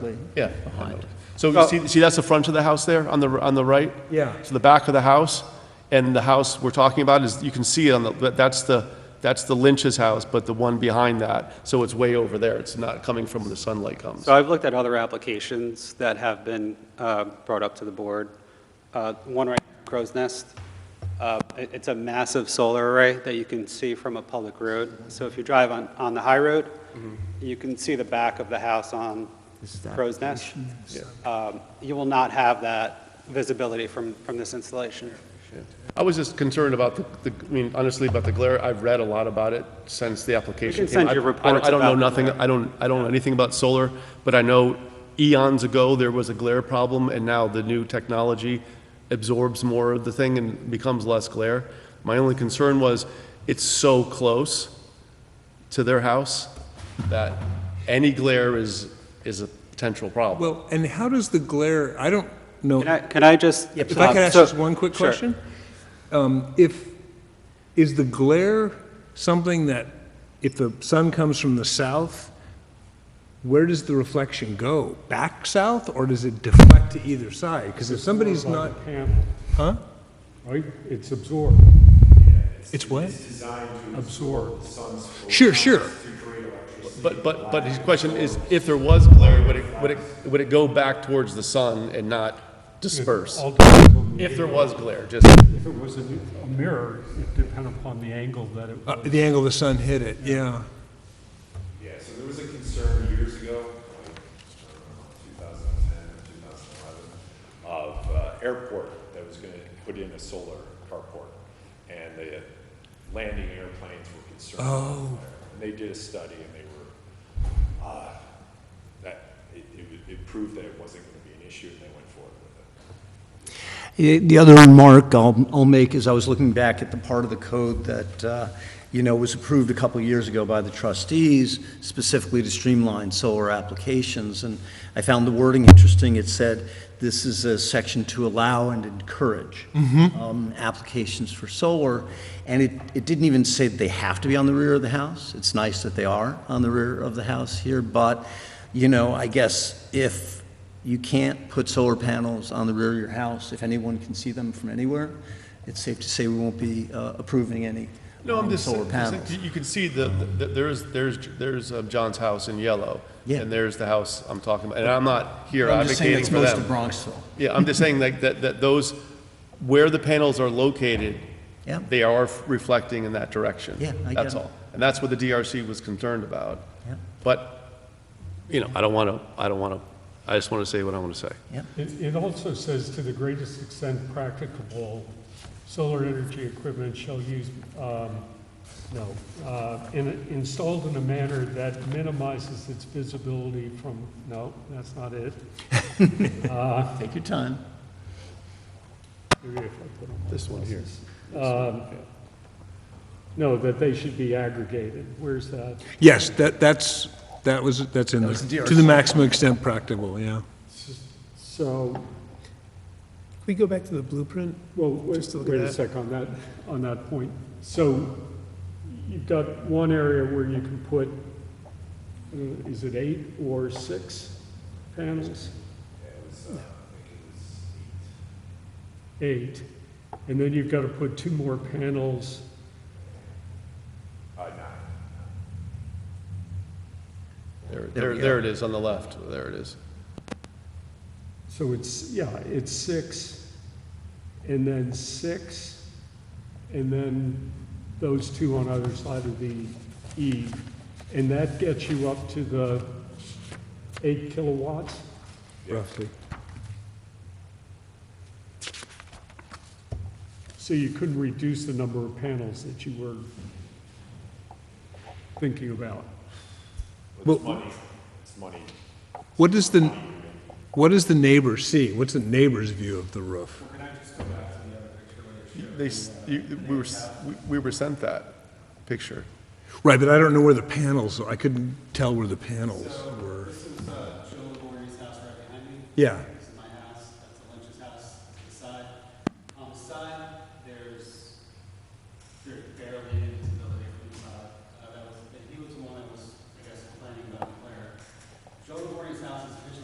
building. yeah, behind. So see, see, that's the front of the house there, on the, on the right? Yeah. So the back of the house, and the house we're talking about is, you can see it on the, that- that's the, that's the Lynch's house, but the one behind that, so it's way over there, it's not coming from where the sunlight comes. So I've looked at other applications that have been uh, brought up to the board. Uh, One right, Crow's Nest. Uh, it- It's a massive solar array that you can see from a public road. So if you drive on, on the high road, Mm-hmm. you can see the back of the house on Crow's Nest. Um, You will not have that visibility from, from this installation. I was just concerned about the, the- I mean, honestly, about the glare. I've read a lot about it since the application came. send out. you I- I don't- reports I don't know about the nothing, glare. I don't, I don't know anything about solar, but I know eons ago, there was a glare problem, and now the new technology absorbs more of the thing and becomes less glare. My only concern was, it's so close to their house that any glare is, is a potential problem. Well, and how does the glare, I don't know, Can I, can I just? Uh, if I could ask so- just one quick Sure. question? Um, If, is the glare something that, if the sun comes from the south, where does the reflection go? Back south, or does it deflect to either side? Because if somebody's not, panel, huh? right? It's absorbed, It's what? absorbed. Sure, sure. But, but, but his question is, if there was glare, would it, would it, would it go back towards the sun and not disperse? All depends on the- If there was glare, just, If it was a a mirror, it depended upon the angle that it Uh, was. The angle the sun hit it, yeah. Yeah, so there was a concern years ago, like, I don't know, 2010 or 2011, of uh, airport that was going to put in a solar carport, and the landing airplanes were concerned. Oh. And they did a study, and they were, uh, that, it, it was- it proved that it wasn't going to be an issue, and they went forward with it. Eh, The other remark I'll, I'll make is I was looking back at the part of the code that, uh, you know, was approved a couple years ago by the trustees specifically to streamline solar applications, and I found the wording interesting. It said, this is a section to allow and encourage um, applications for solar, and it, it didn't even say that they have to be on the rear of the house. It's nice that they are on the rear of the house here, but, you know, I guess if you can't put solar panels on the rear of your house if anyone can see them from anywhere. It's safe to say we won't be uh, approving any no, I'm um, just, solar just- panels. you can see the, the- there's, there's, there's um, John's house in yellow. Yeah. And there's the house I'm talking about, and I'm not here I'm just saying advocating that's for most of them. Bronxville. Yeah, I'm just saying like that, that those, where the panels are located, Yeah. they are reflecting in that direction. Yeah, I get That's it. all. And that's what the DRC was concerned about. Yeah. But, you know, I don't want to, I don't want to, I just want to say what I want to say. It, it also says to the greatest extent practicable, solar energy equipment shall use, um, no, uh, in, installed in a manner that minimizes its visibility from, no, that's not it. Uh, Take your time. Maybe if I put 'em This one here. all- No, that they should be aggregated. Where's that? Yes, that, that's, that was, that's in, was the- DRC. to the maximum extent practicable, yeah. So, Can we go back to the blueprint? Well, wait Just to look at wait a that. sec on that, on that point. So you've got one area where you can put, uh, is it eight or six panels? Eight. And then you've got to put two more panels. There, there, there it is on the left. There it is. So it's, yeah, it's six, and then six, and then those two on either side of the E. And that gets you up to the eight kilowatts? Roughly. So you couldn't reduce the number of panels that you were thinking about? Well, It's money. what does the, what does the neighbor see? What's the neighbor's view of the roof? They, s- you- we were, s- we- we were sent that picture. Right, but I don't know where the panels, I couldn't tell where the panels were. This is uh, Joe Laborie's house right behind me. Yeah, Uh,